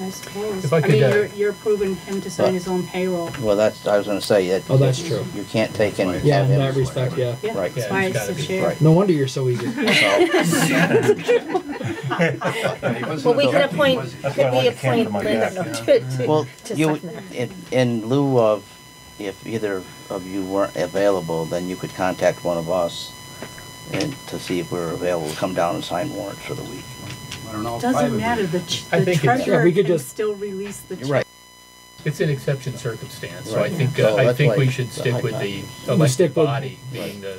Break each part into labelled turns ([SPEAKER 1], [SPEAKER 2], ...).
[SPEAKER 1] I suppose.
[SPEAKER 2] If I
[SPEAKER 1] Oh, I
[SPEAKER 2] could,
[SPEAKER 1] mean,
[SPEAKER 2] uh,
[SPEAKER 1] you're, you're approving him to sign his own payroll.
[SPEAKER 3] Well, that's, I was gonna say that.
[SPEAKER 4] Oh, that's true.
[SPEAKER 3] You can't take any.
[SPEAKER 4] Yeah,
[SPEAKER 3] of
[SPEAKER 4] in
[SPEAKER 3] him.
[SPEAKER 4] that respect, yeah.
[SPEAKER 1] Yeah,
[SPEAKER 3] Right.
[SPEAKER 1] that's
[SPEAKER 2] Yeah,
[SPEAKER 1] why
[SPEAKER 2] it's
[SPEAKER 1] it's a
[SPEAKER 2] gotta be-
[SPEAKER 1] share.
[SPEAKER 3] Right.
[SPEAKER 4] No wonder you're so eager.
[SPEAKER 5] Well, we could appoint,
[SPEAKER 6] That's why I
[SPEAKER 5] could we
[SPEAKER 6] like the camera
[SPEAKER 5] appoint
[SPEAKER 6] in my
[SPEAKER 5] Linda
[SPEAKER 6] back,
[SPEAKER 5] no,
[SPEAKER 6] yeah.
[SPEAKER 5] to, to,
[SPEAKER 3] Well,
[SPEAKER 5] to
[SPEAKER 3] you,
[SPEAKER 5] sign
[SPEAKER 3] would-
[SPEAKER 5] that?
[SPEAKER 3] in, in lieu of, if either of you weren't available, then you could contact one of us and to see if we're available, to come down and sign warrants for the week.
[SPEAKER 6] I don't know. if five
[SPEAKER 1] Doesn't
[SPEAKER 6] of
[SPEAKER 1] matter,
[SPEAKER 6] you-
[SPEAKER 1] the ch-
[SPEAKER 2] I
[SPEAKER 1] the
[SPEAKER 2] think it's-
[SPEAKER 4] Yeah,
[SPEAKER 1] treasurer
[SPEAKER 4] we could
[SPEAKER 1] can
[SPEAKER 4] just-
[SPEAKER 1] still release the check.
[SPEAKER 3] You're right.
[SPEAKER 2] It's an exception circumstance, so I
[SPEAKER 3] Right.
[SPEAKER 2] think,
[SPEAKER 3] So
[SPEAKER 2] uh, I
[SPEAKER 3] that's
[SPEAKER 2] think
[SPEAKER 3] why
[SPEAKER 2] we should
[SPEAKER 3] the
[SPEAKER 2] stick with
[SPEAKER 3] high
[SPEAKER 2] the
[SPEAKER 4] We stick
[SPEAKER 2] elected
[SPEAKER 4] with-
[SPEAKER 2] body being the,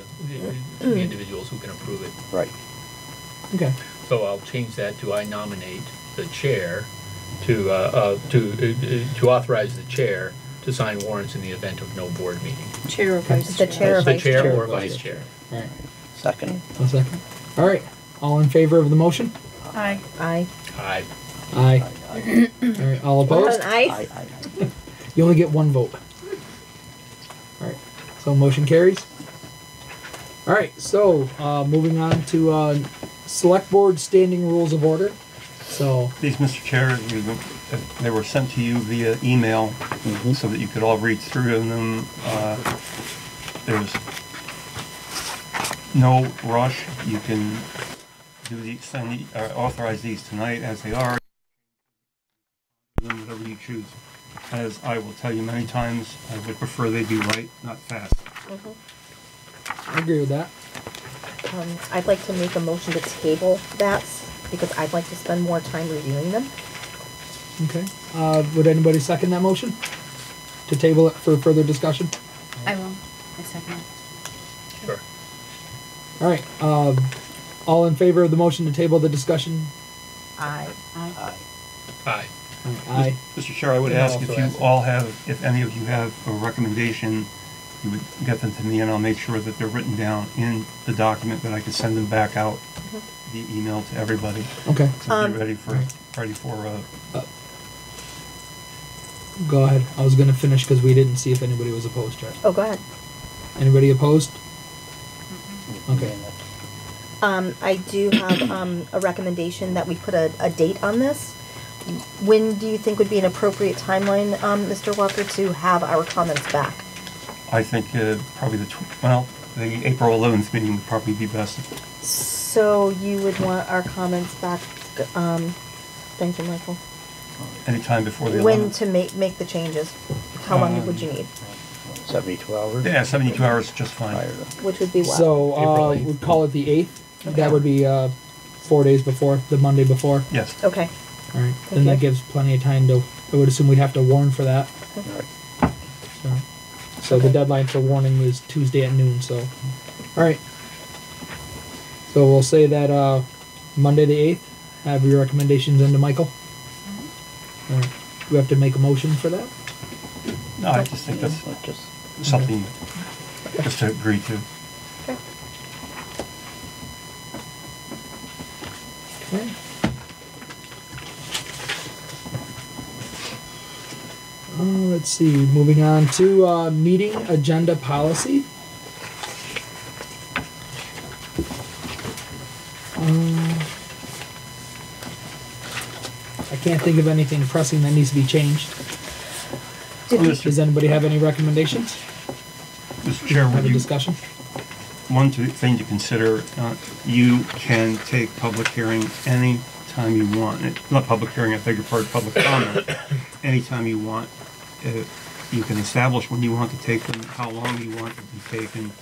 [SPEAKER 2] the- the individuals who can approve it.
[SPEAKER 3] Right.
[SPEAKER 4] Okay.
[SPEAKER 2] So I'll change that to I nominate the chair to, uh, uh, to, uh, to authorize the chair to sign warrants in the event of no board meeting.
[SPEAKER 1] Chair or vice
[SPEAKER 5] The
[SPEAKER 1] chair.
[SPEAKER 5] chair or
[SPEAKER 2] The
[SPEAKER 5] vice chair?
[SPEAKER 2] chair or vice chair.
[SPEAKER 4] All right.
[SPEAKER 3] Second.
[SPEAKER 4] One second. All right. All in favor of the motion?
[SPEAKER 5] Aye. Aye.
[SPEAKER 2] I,
[SPEAKER 4] Aye. All right. All opposed?
[SPEAKER 5] Aye.
[SPEAKER 3] I- I-
[SPEAKER 4] You only get one vote. All right. So motion carries. All right. So uh, moving on to uh, select board standing rules of order. So
[SPEAKER 6] These, Mr. Chair, you, they were sent to you via email
[SPEAKER 5] Mm-hmm.
[SPEAKER 6] so that you could all read through them. Uh, There's no rush. You can do the, send, the- uh, authorize these tonight as they are. Them Whatever you choose. As I will tell you many times, I would prefer they be right, not fast.
[SPEAKER 4] I agree with that.
[SPEAKER 5] Mm-hmm. Um, I'd like to make a motion to table that because I'd like to spend more time reviewing them.
[SPEAKER 4] Okay. Uh, would anybody second that motion? To table it for further discussion?
[SPEAKER 7] I will. I second
[SPEAKER 2] sure.
[SPEAKER 4] All right. Um, all in favor of the motion to table the discussion?
[SPEAKER 5] Aye.
[SPEAKER 7] it.
[SPEAKER 2] Aye.
[SPEAKER 4] Aye.
[SPEAKER 6] Mr. Chair, I would
[SPEAKER 2] And
[SPEAKER 6] ask
[SPEAKER 2] also
[SPEAKER 6] if you
[SPEAKER 2] ask-
[SPEAKER 6] all have, if any of you have a recommendation, you would get them to me and I'll make sure that they're written down in the document that I can send them back out, the email to everybody.
[SPEAKER 4] Okay.
[SPEAKER 6] So be ready for, ready for, uh,
[SPEAKER 4] Go ahead. I was gonna finish because we didn't see if anybody was opposed yet.
[SPEAKER 5] Oh, go ahead.
[SPEAKER 4] Anybody opposed? Okay.
[SPEAKER 5] Um, I do have, um, a recommendation that we put a, a date on this. When do you think would be an appropriate timeline, um, Mr. Walker, to have our comments back?
[SPEAKER 6] I think, uh, probably the, tw- well, the April eleventh meeting would probably be best.
[SPEAKER 5] So you would want our comments back, um, thank you, Michael.
[SPEAKER 6] Anytime before the
[SPEAKER 5] When
[SPEAKER 6] eleventh.
[SPEAKER 5] to make, make the changes? How long would you need?
[SPEAKER 3] Seventy-two hours?
[SPEAKER 6] Yeah, seventy-two hours is just fine.
[SPEAKER 3] Prior to-
[SPEAKER 5] Which would be what?
[SPEAKER 4] So
[SPEAKER 2] April
[SPEAKER 4] uh,
[SPEAKER 2] eighth.
[SPEAKER 4] we'd call it the eighth.
[SPEAKER 5] Okay.
[SPEAKER 4] That would be uh, four days before the Monday before.
[SPEAKER 6] Yes.
[SPEAKER 5] Okay,
[SPEAKER 4] All right. Then that
[SPEAKER 5] Okay.
[SPEAKER 4] gives plenty of time to. I would assume we'd have to warn for that.
[SPEAKER 3] Right.
[SPEAKER 4] So, so the deadline for warning is Tuesday at noon. So, all right. So we'll say that uh, Monday the eighth. Have your recommendations into Michael. All right. Do we have to make a motion for that?
[SPEAKER 6] No, I just think that's
[SPEAKER 3] Let's Just,
[SPEAKER 6] something just to agree to.
[SPEAKER 5] okay.
[SPEAKER 4] Okay. Uh, let's see. Moving on to uh, meeting agenda policy. Um, I can't think of anything pressing that needs to be changed.
[SPEAKER 6] Well,
[SPEAKER 4] Does
[SPEAKER 6] Mr.
[SPEAKER 4] anybody have any recommendations?
[SPEAKER 6] Mr. Chair,
[SPEAKER 4] Have
[SPEAKER 6] would
[SPEAKER 4] a
[SPEAKER 6] you
[SPEAKER 4] discussion?
[SPEAKER 6] One to- thing to consider, uh, you can take public hearing any time you want. It- Not public hearing, I beg your pardon, public comment, anytime you want. Uh, You can establish when you want to take them, how long you want to be taken.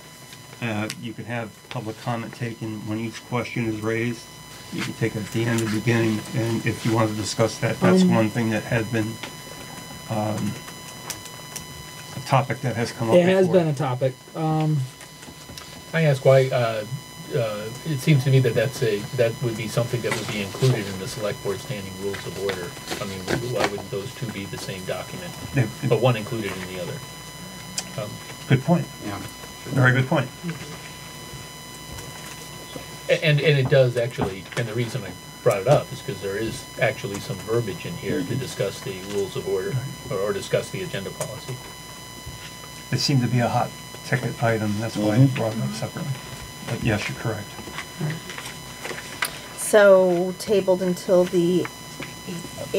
[SPEAKER 6] Uh, You can have public comment taken when each question is raised. You can take it at the end, the beginning, and if you want to discuss that, that's
[SPEAKER 4] Um,
[SPEAKER 6] one thing that had been, um, a topic that has come up
[SPEAKER 4] It
[SPEAKER 6] before.
[SPEAKER 4] has been a topic. Um,
[SPEAKER 2] I ask why, uh, uh, it seems to me that that's a, that would be something that would be included in the select board standing rules of order. I mean, why would those two be the same document,
[SPEAKER 6] Yeah,
[SPEAKER 2] but one included in the other? Um,
[SPEAKER 6] Good point.
[SPEAKER 8] Yeah.
[SPEAKER 6] Very good point.
[SPEAKER 2] a- And, and it does actually, and the reason I brought it up is because there is actually some verbiage in here to discuss the rules of order, or- or discuss the agenda policy.
[SPEAKER 6] It seemed to be a hot ticket item, that's why I
[SPEAKER 3] Mhm.
[SPEAKER 6] brought it up separately. But yes, you're correct.
[SPEAKER 5] So tabled until the